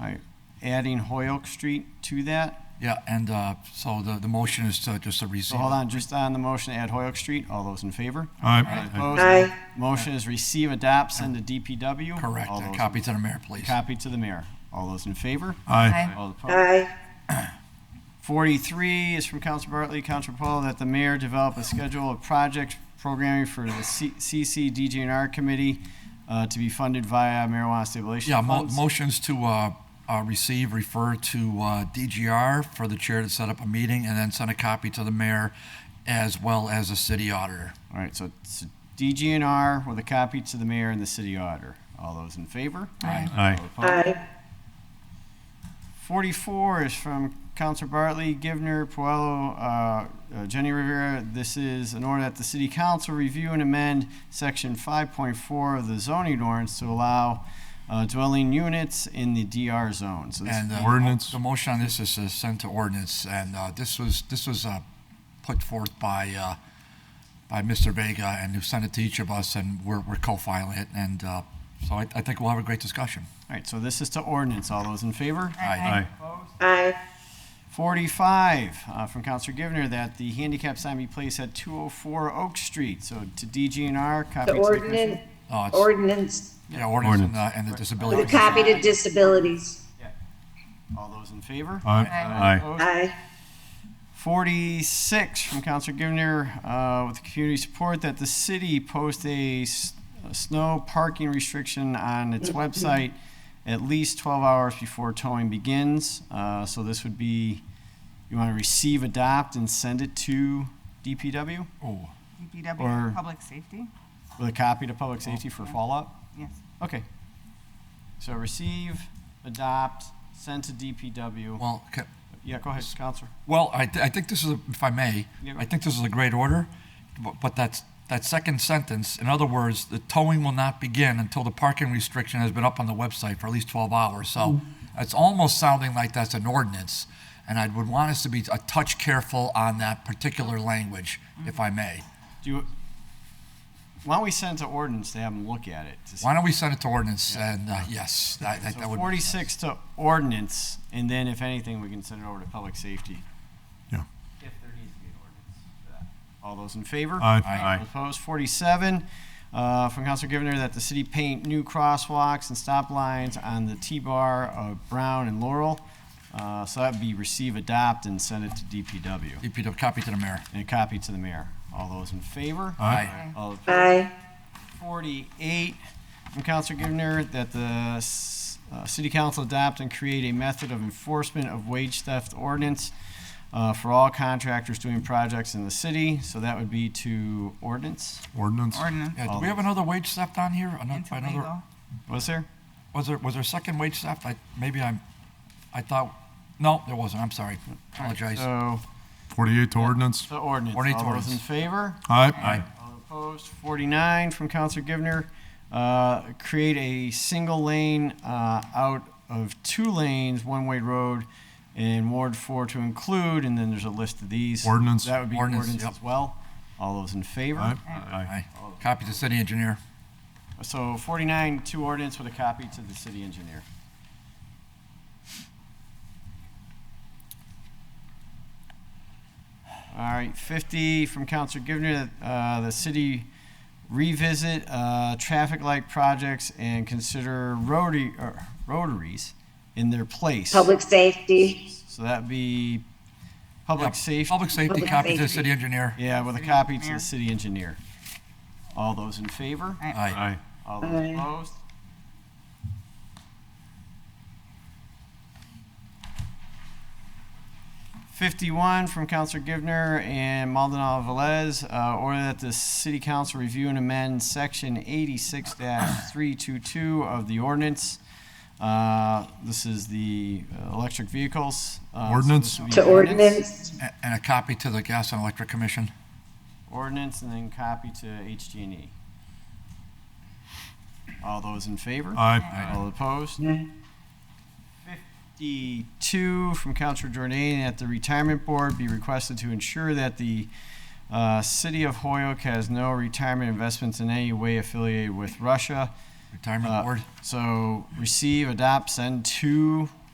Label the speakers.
Speaker 1: adding Hoyoke Street to that.
Speaker 2: Yeah, and uh, so the, the motion is to just to
Speaker 1: So
Speaker 2: receive.
Speaker 1: hold on, just on the motion to add Hoyoke Street, all those in favor?
Speaker 3: Aye.
Speaker 1: Opposed?
Speaker 4: Aye.
Speaker 1: Motion is receive, adopt, send to DPW.
Speaker 2: Correct,
Speaker 1: All
Speaker 2: and
Speaker 1: those-
Speaker 2: copy to the mayor, please.
Speaker 1: Copy to the mayor. All those in favor?
Speaker 3: Aye.
Speaker 1: All opposed?
Speaker 4: aye,
Speaker 1: 43 is from Council Bartley, Council Paul, that the mayor develop a schedule of project programming for the C- CC DGNR Committee uh, to be funded via marijuana stabilization
Speaker 2: Yeah, mo-
Speaker 1: funds.
Speaker 2: motions to uh, uh, receive, refer to uh, DGR for the chair to set up a meeting, and then send a copy to the mayor as well as the city auditor.
Speaker 1: All right, so it's DGNR with a copy to the mayor and the city auditor. All those in favor?
Speaker 3: Aye.
Speaker 1: All opposed?
Speaker 4: aye,
Speaker 1: 44 is from Counselor Bartley, Givner, Puello, uh, uh, Jenny Rivera. This is an order that the city council review and amend section 5.4 of the zoning ordinance to allow uh, dwelling units in the DR zone. So this-
Speaker 2: And uh,
Speaker 3: Ordinance.
Speaker 2: The motion on this is to send to ordinance, and uh, this was, this was uh, put forth by, uh, by Mr. Vega, and who sent it to each of us, and we're, we're co-filing it, and uh, so I, I think we'll have a great discussion.
Speaker 1: all right, so this is to ordinance. All those in favor?
Speaker 3: Aye.
Speaker 1: 45 uh, from Counselor Givner that the handicap sign be placed at 204 Oak Street. So to DGNR, copy
Speaker 4: the
Speaker 1: to the commission.
Speaker 4: ordinance,
Speaker 2: Uh, it's-
Speaker 4: ordinance,
Speaker 2: Yeah, ordinance and, uh,
Speaker 3: Ordinance.
Speaker 2: and the
Speaker 4: with
Speaker 2: disability.
Speaker 4: a copy to disabilities,
Speaker 1: All those in favor?
Speaker 3: Aye.
Speaker 1: Opposed?
Speaker 4: aye,
Speaker 1: 46 from Counselor Givner, uh, with community support, that the city post a s- a snow parking restriction on
Speaker 4: Mm-hmm.
Speaker 1: its website at least 12 hours before towing begins. Uh, So this would be, you want to receive, adopt, and send it to DPW?
Speaker 2: Oh,
Speaker 1: Or-
Speaker 5: DPW, public safety,
Speaker 1: With a copy to public safety for follow-up?
Speaker 5: yes.
Speaker 1: Okay. So receive, adopt, send to DPW.
Speaker 2: well, ca-
Speaker 1: Yeah, go ahead, Counselor.
Speaker 2: well, I, thi- I think this is, a- if I may,
Speaker 1: Yeah.
Speaker 2: I think this is a great order, bu- but that's, that second sentence, in other words, the towing will not begin until the parking restriction has been up on the website for at least 12 hours. So it's almost sounding like that's an ordinance, and I would want us to be a touch careful on that particular language, if I may.
Speaker 1: Do you, why don't we send it to ordinance to have them look at it? to see-
Speaker 2: Why don't we send it to ordinance, and, uh, yes, that, that
Speaker 1: So
Speaker 2: that would.
Speaker 1: 46 to ordinance, and then if anything, we can send it over to public safety.
Speaker 3: Yeah.
Speaker 1: If there needs to be an ordinance for that. All those in favor?
Speaker 3: Aye.
Speaker 1: All Opposed? 47, uh, from Counselor Givner, that the city paint new crosswalks and stop lines on the T-bar of Brown and Laurel. Uh, So that'd be receive, adopt, and send it to DPW,
Speaker 2: DPW, copy to the mayor.
Speaker 1: and a copy to the mayor. All those in favor?
Speaker 2: Aye.
Speaker 1: All opposed?
Speaker 4: aye,
Speaker 1: 48 from Counselor Givner that the s- uh, city council adopt and create a method of enforcement of wage theft ordinance uh, for all contractors doing projects in the city. So that would be to ordinance.
Speaker 3: Ordinance.
Speaker 5: Ordinance,
Speaker 2: Yeah, Uh, do
Speaker 1: Um,
Speaker 2: we have another wage theft on here? Another,
Speaker 5: into
Speaker 2: another?
Speaker 5: legal.
Speaker 1: Was there?
Speaker 2: Was there, was there a second wage theft? I, maybe I'm, I thought, no, there wasn't, I'm sorry. Apologize.
Speaker 1: So,
Speaker 3: Forty-eight to ordinance.
Speaker 1: so ordinance.
Speaker 2: Ordinance,
Speaker 1: All those in
Speaker 2: ordinance.
Speaker 1: favor?
Speaker 3: Aye.
Speaker 1: All opposed? 49 from Counselor Givner, uh, create a single lane uh, out of two lanes, one-way road in Ward 4 to include, and then there's a list of these.
Speaker 3: Ordinance.
Speaker 1: That would be
Speaker 2: Ordinance,
Speaker 1: ordinance
Speaker 2: yep.
Speaker 1: as well. All those in favor?
Speaker 3: Aye. Aye.
Speaker 2: Aye. Copy to city engineer.
Speaker 1: So 49, two ordinance with a copy to the city engineer. All right, 50 from Counselor Givner, that uh, the city revisit uh, traffic light projects and consider rotary, er, rotaries in their place.
Speaker 4: public safety,
Speaker 1: So that'd be public safety.
Speaker 2: Public safety,
Speaker 4: Public
Speaker 2: copy to
Speaker 4: safety.
Speaker 2: city engineer.
Speaker 1: Yeah, with a
Speaker 5: City
Speaker 1: copy to the
Speaker 5: engineer.
Speaker 1: city engineer. All those in favor?
Speaker 2: Aye.
Speaker 3: Aye.
Speaker 1: All those
Speaker 4: Aye.
Speaker 1: opposed? Fifty-one from Counselor Givner and Maldonado Velez, uh, order that the city council review and amend section eighty-six three-two-two of the ordinance. Uh, this is the uh, electric vehicles. Uh, so
Speaker 3: Ordinance.
Speaker 1: this would be
Speaker 4: to ordinance,
Speaker 2: A- And a copy to the gas and electric commission.
Speaker 1: Ordinance and then copy to HG&E. E. All those in favor?
Speaker 3: Aye.
Speaker 1: All opposed?
Speaker 4: Aye.
Speaker 1: 52 from Counselor Jordan, that the retirement board be requested to ensure that the uh, city of Hoyoke has no retirement investments in any way affiliated with Russia.
Speaker 2: Retirement
Speaker 1: Uh,
Speaker 2: board.
Speaker 1: So receive, adopt, send to